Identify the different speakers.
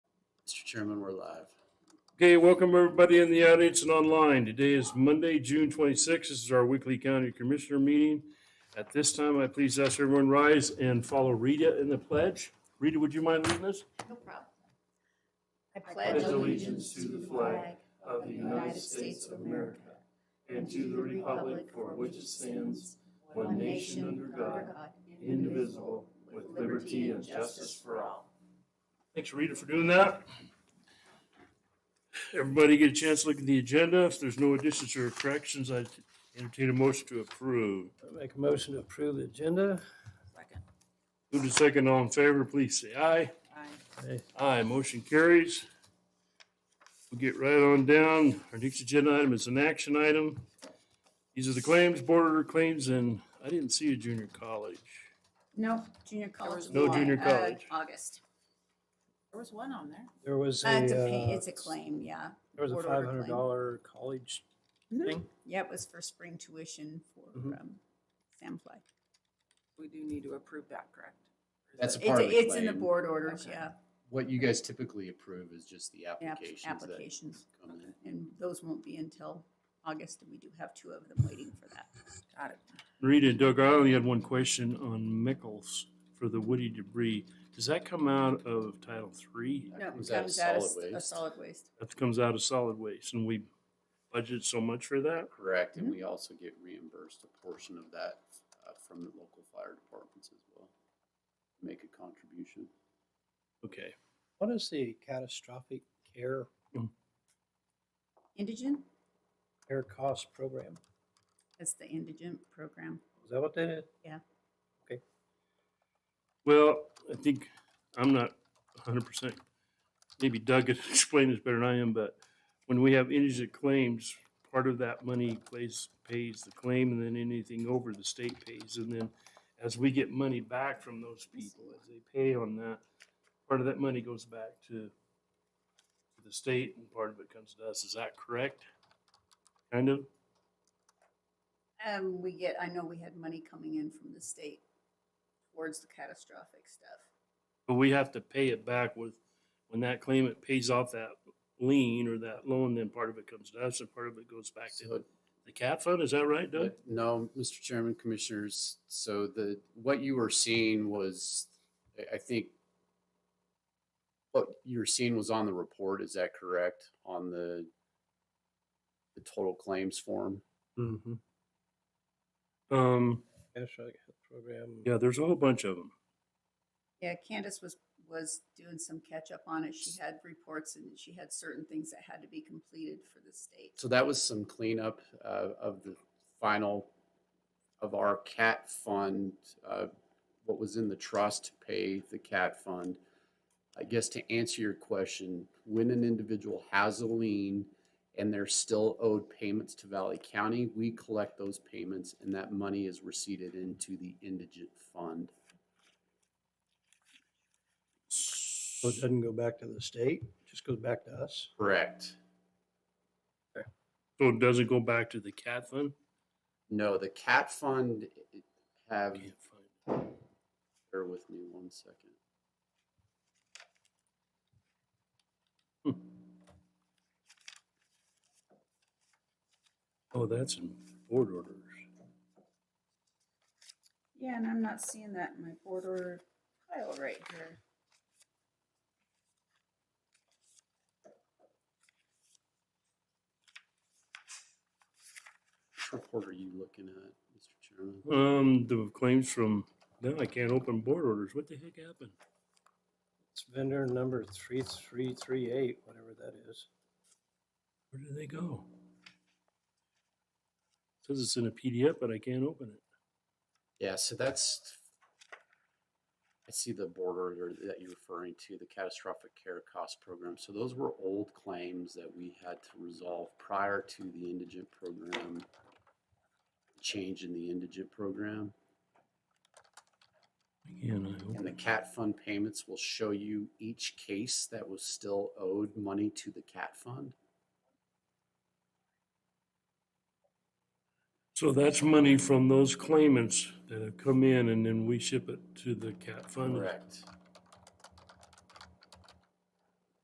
Speaker 1: Mr. Chairman, we're live.
Speaker 2: Okay, welcome everybody in the audience and online. Today is Monday, June 26th. This is our weekly county commissioner meeting. At this time, I please ask everyone rise and follow Rita in the pledge. Rita, would you mind leading us?
Speaker 3: No problem.
Speaker 4: I
Speaker 3: pledge allegiance
Speaker 4: pledge allegiance
Speaker 3: to
Speaker 4: to
Speaker 3: the
Speaker 4: the flag
Speaker 3: of the United States of America
Speaker 4: and to the republic for which it stands, one nation under God, indivisible, with liberty and justice for all.
Speaker 2: Thanks, Rita, for doing that. Everybody get a chance to look at the agenda. If there's no additions or corrections, I entertain a motion to approve.
Speaker 5: Make a motion to approve the agenda.
Speaker 4: Second.
Speaker 2: Move to second, all in favor, please say aye.
Speaker 5: Aye.
Speaker 2: Aye, motion carries. We'll get right on down. Our next agenda item is an action item. These are the claims, board order claims, and I didn't see a junior college.
Speaker 3: No, junior college.
Speaker 2: no
Speaker 3: one,
Speaker 2: junior
Speaker 3: uh,
Speaker 2: college.
Speaker 3: August.
Speaker 4: There was one on there.
Speaker 5: There was a,
Speaker 3: Uh, It's a, pay-
Speaker 5: uh,
Speaker 3: it's a claim, yeah.
Speaker 5: there was a
Speaker 3: board
Speaker 5: five
Speaker 3: order
Speaker 5: hundred
Speaker 3: claim.
Speaker 5: dollar college thing.
Speaker 3: Yeah, it was for spring tuition for,
Speaker 5: Mhm.
Speaker 3: um, Samfly.
Speaker 4: We do need to approve that, correct?
Speaker 1: That's a
Speaker 3: It's,
Speaker 1: part of the
Speaker 3: it's in the
Speaker 1: claim.
Speaker 3: board orders,
Speaker 4: Okay.
Speaker 3: yeah,
Speaker 1: What you guys typically approve is just the
Speaker 3: app-
Speaker 1: applications that
Speaker 3: applications.
Speaker 1: come in.
Speaker 3: And those won't be until August, and we do have two of them waiting for that.
Speaker 4: Got it.
Speaker 2: Rita and Doug, I only had one question on Mickels for the woody debris. Does that come out of Title III?
Speaker 3: No,
Speaker 1: comes
Speaker 3: it
Speaker 1: out of
Speaker 3: comes out
Speaker 1: solid
Speaker 3: of s- of
Speaker 1: waste.
Speaker 3: solid waste.
Speaker 2: That comes out of solid waste, and we budget so much for that?
Speaker 1: Correct,
Speaker 3: Mm-hmm.
Speaker 1: and we also get reimbursed a portion of that uh, from the local fire departments as well. Make a contribution.
Speaker 2: Okay.
Speaker 5: What is the catastrophic care,
Speaker 3: Indigent,
Speaker 5: care cost program?
Speaker 3: that's the indigent program.
Speaker 5: Is that what that is?
Speaker 2: Well, I think, I'm not hundred percent, maybe Doug could explain this better than I am, but when we have indigent claims, part of that money plays, pays the claim, and then anything over the state pays, and then as we get money back from those people, as they pay on that, part of that money goes back to to the state, and part of it comes to us, is that correct? Kind of,
Speaker 3: Um, we get, I know we had money coming in from the state towards the catastrophic stuff.
Speaker 2: but we have to pay it back with, when that claimant pays off that lien or that loan, then part of it comes to us, and part of it goes back to
Speaker 1: So
Speaker 2: The cat fund, is that right, Doug?
Speaker 1: No, Mr. Chairman, Commissioners, so the, what you were seeing was, I- I think, what you were seeing was on the report, is that correct? On the, the total claims form?
Speaker 2: Mm-hmm. Um,
Speaker 5: Catastrophic health program.
Speaker 2: yeah, there's a whole bunch of them.
Speaker 3: Yeah, Candace was, was doing some catch up on it. She had reports and she had certain things that had to be completed for the state.
Speaker 1: So that was some cleanup uh, of the final, of our cat fund, uh, what was in the trust to pay the cat fund. I guess to answer your question, when an individual has a lien and they're still owed payments to Valley County, we collect those payments and that money is receipted into the indigent fund.
Speaker 5: So it doesn't go back to the state, it just goes back to us.
Speaker 1: Correct.
Speaker 2: So it doesn't go back to the cat fund?
Speaker 1: No, the cat fund have,
Speaker 2: Can't find it.
Speaker 1: bear with me one second.
Speaker 2: Oh, that's in board orders.
Speaker 3: Yeah, and I'm not seeing that in my board order pile right here.
Speaker 1: Which report are you looking at, Mr. Chairman?
Speaker 2: Um, the claims from, no, I can't open board orders. What the heck happened?
Speaker 5: It's vendor number three, three, three, eight, whatever that is.
Speaker 2: Where did they go? Says it's in a PDF, but I can't open it.
Speaker 1: Yeah, so that's, I see the border there that you're referring to, the catastrophic care cost program. So those were old claims that we had to resolve prior to the indigent program, change in the indigent program.
Speaker 2: Again, I
Speaker 1: And
Speaker 2: open
Speaker 1: the
Speaker 2: it.
Speaker 1: CAT fund payments will show you each case that was still owed money to the CAT fund.
Speaker 2: So that's money from those claimants that have come in and then we ship it to the cat fund.
Speaker 1: Correct.